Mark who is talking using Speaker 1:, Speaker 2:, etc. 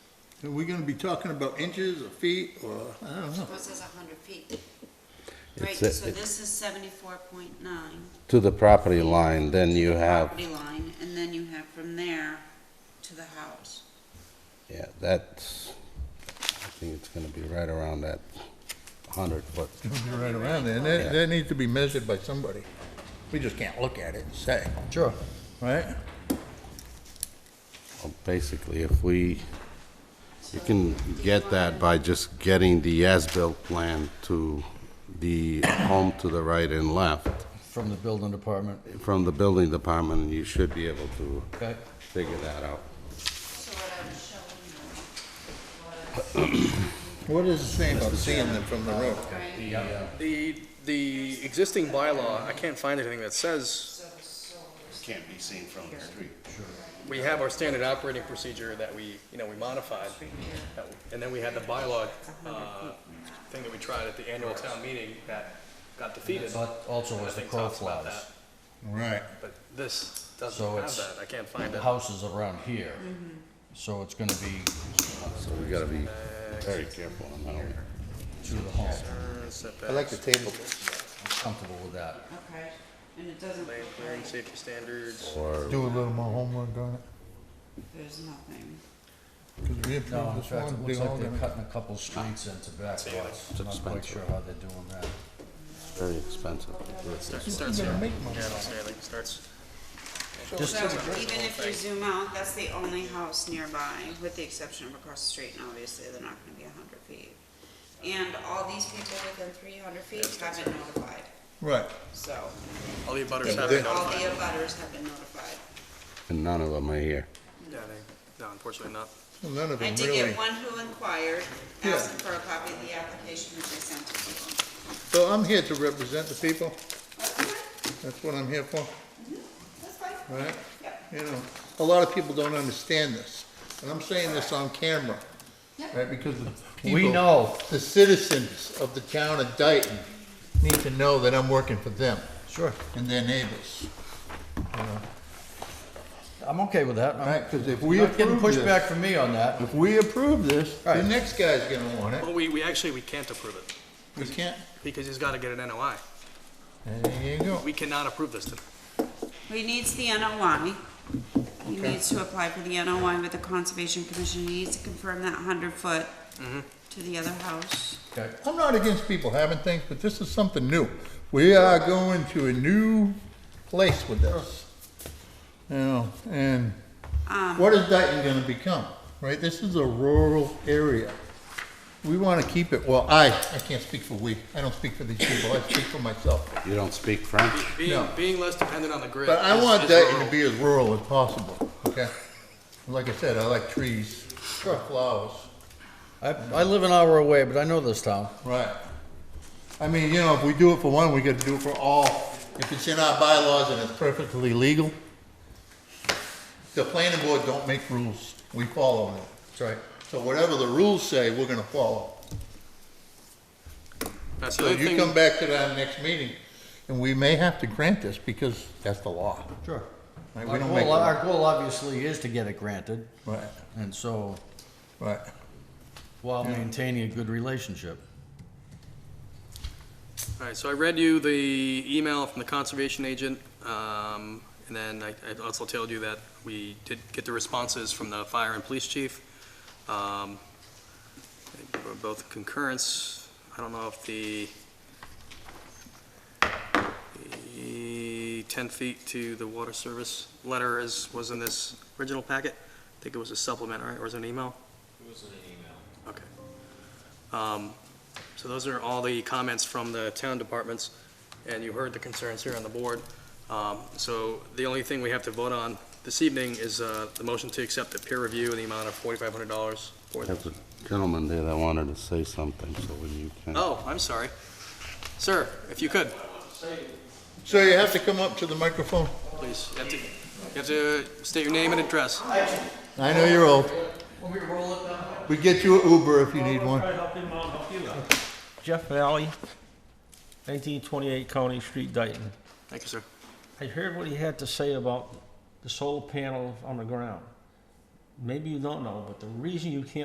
Speaker 1: Are we gonna be talking about inches or feet or, I don't know.
Speaker 2: Well, it says hundred feet. Right,
Speaker 3: It's,
Speaker 2: so
Speaker 3: uh,
Speaker 2: this is seventy-four point nine.
Speaker 3: To the property line, then you have,
Speaker 2: Property line, and then you have from there to the house.
Speaker 3: yeah, that's, I think it's gonna be right around that hundred foot.
Speaker 1: It'll be right around there. And that, that needs to be measured by somebody. We just can't look at it and say. Sure. Right?
Speaker 3: Well, Basically, if we,
Speaker 2: So
Speaker 3: you can
Speaker 2: do you
Speaker 3: get
Speaker 2: wanna-
Speaker 3: that by just getting the as-built plan to the home to the right and left
Speaker 4: from the building department.
Speaker 3: from the building department, and you should be able to
Speaker 4: Okay.
Speaker 3: figure that out.
Speaker 2: So what I was showing
Speaker 1: What does it say about seeing them from the road?
Speaker 2: you, right?
Speaker 5: The, the existing bylaw, I can't find anything that says,
Speaker 3: Can't be seen from the street.
Speaker 5: we have our standard operating procedure that we, you know, we modified. And then we had the bylaw, uh, thing that we tried at the annual town meeting that got defeated.
Speaker 4: But also
Speaker 5: And I
Speaker 4: was the
Speaker 5: think
Speaker 4: crow
Speaker 5: talks about
Speaker 4: flies.
Speaker 1: Right.
Speaker 5: that, But this doesn't
Speaker 4: So
Speaker 5: have
Speaker 4: it's-
Speaker 5: that, I can't find
Speaker 4: The
Speaker 5: it.
Speaker 4: houses around here, so it's gonna be
Speaker 3: So we gotta be very careful on that one.
Speaker 4: to the home.
Speaker 1: I like the table.
Speaker 4: I'm comfortable with that.
Speaker 2: Okay, and it doesn't look
Speaker 5: Land clearing,
Speaker 2: like
Speaker 5: safety standards.
Speaker 3: Or
Speaker 1: Do a little more homework on it.
Speaker 2: there's nothing.
Speaker 1: Cause we
Speaker 4: No,
Speaker 1: approved
Speaker 4: in
Speaker 1: this
Speaker 4: fact, it
Speaker 1: one, they
Speaker 4: looks
Speaker 1: all
Speaker 4: like they're
Speaker 1: gonna.
Speaker 4: cutting a couple streets into back lots. I'm not quite
Speaker 3: expensive.
Speaker 4: sure how they're doing that.
Speaker 3: very expensive.
Speaker 5: Start- Starts here, yeah, it's there, like, it starts.
Speaker 4: Just-
Speaker 2: So even if you zoom out, that's the only house nearby, with the exception of across the street, and obviously they're not gonna be hundred feet. And all these people within three hundred feet have been notified,
Speaker 1: Right.
Speaker 2: so
Speaker 5: All the abutters have been
Speaker 2: all
Speaker 5: notified.
Speaker 2: the abutters have been notified.
Speaker 3: And none of them are here.
Speaker 5: Yeah, they, no, unfortunately not.
Speaker 1: Well, None of
Speaker 2: I
Speaker 1: them
Speaker 2: did
Speaker 1: really.
Speaker 2: get one who inquired,
Speaker 1: Yeah.
Speaker 2: asking for a copy of the application that they sent to people.
Speaker 1: So I'm here to represent the people.
Speaker 2: Okay,
Speaker 1: That's what I'm here for,
Speaker 2: That's fine,
Speaker 1: right?
Speaker 2: yep,
Speaker 1: You know, a lot of people don't understand this. And I'm saying this on camera,
Speaker 2: yep,
Speaker 1: right? Because the people.
Speaker 4: We know,
Speaker 1: the citizens of the town of Dayton need to know that I'm working for them
Speaker 4: sure,
Speaker 1: and their neighbors.
Speaker 4: I'm okay with that. I'm
Speaker 1: Right, because if we
Speaker 4: not getting
Speaker 1: approve
Speaker 4: pushback
Speaker 1: this,
Speaker 4: from me on that.
Speaker 1: if we approve this, the
Speaker 4: Right.
Speaker 1: next guy's gonna want it.
Speaker 5: Well, we, we actually, we can't approve it,
Speaker 1: We can't,
Speaker 5: because he's gotta get an NOI.
Speaker 1: and there you go.
Speaker 5: We cannot approve this today.
Speaker 2: He needs the NOI. He needs to apply for the NOI with the Conservation Commission. He needs to confirm that hundred foot
Speaker 1: Mm-hmm.
Speaker 2: to the other house.
Speaker 4: Okay.
Speaker 1: I'm not against people having things, but this is something new. We are going to a new place with this. You know, and what is Dayton gonna become, right? This is a rural area. We wanna keep it, well, I, I can't speak for we, I don't speak for these people, I speak for myself.
Speaker 3: You don't speak French?
Speaker 5: Being,
Speaker 1: No.
Speaker 5: being less dependent on the grid.
Speaker 1: But I
Speaker 5: is-
Speaker 1: want
Speaker 5: is
Speaker 1: Dayton
Speaker 5: rural.
Speaker 1: to be as rural as possible, okay? Like I said, I like trees, flowers.
Speaker 4: I, I live an hour away, but I know this town.
Speaker 1: Right. I mean, you know, if we do it for one, we gotta do it for all. If it's in our bylaws and it's perfectly legal, the planning board don't make rules, we follow them.
Speaker 4: That's right.
Speaker 1: So whatever the rules say, we're gonna follow.
Speaker 5: That's the
Speaker 1: So
Speaker 5: other
Speaker 1: you
Speaker 5: thing.
Speaker 1: come back to that next meeting, and we may have to grant this because that's the law.
Speaker 4: Sure.
Speaker 1: Right, we
Speaker 4: Our
Speaker 1: don't make,
Speaker 4: goal,
Speaker 1: law.
Speaker 4: our goal obviously is to get it granted,
Speaker 1: right,
Speaker 4: and so,
Speaker 1: right.
Speaker 4: while maintaining a good relationship.
Speaker 5: All right, so I read you the email from the conservation agent, um, and then I I also told you that we did get the responses from the fire and police chief. Um, they were Both concurrence, I don't know if the the 10 feet to the water service letter is, was in this original packet? I think it was a supplement, right, or was it an email? It was in an email. Okay. Um, so those are all the comments from the town departments, and you heard the concerns here on the board. Um, So the only thing we have to vote on this evening is uh, the motion to accept the peer review in the amount of $4,500. for-
Speaker 3: There's a gentleman there that wanted to say something, so when you can.
Speaker 5: Oh, I'm sorry. Sir, if you could,
Speaker 1: So you have to come up to the microphone.
Speaker 5: please. You have to- you have to state your name and address.
Speaker 1: I know you're old. We get you an Uber if you need one.
Speaker 6: Jeff Valley, 1928 County Street, Dayton.
Speaker 5: Thank you, sir.
Speaker 6: I heard what he had to say about the solar panel on the ground. Maybe you don't know, but the reason you can't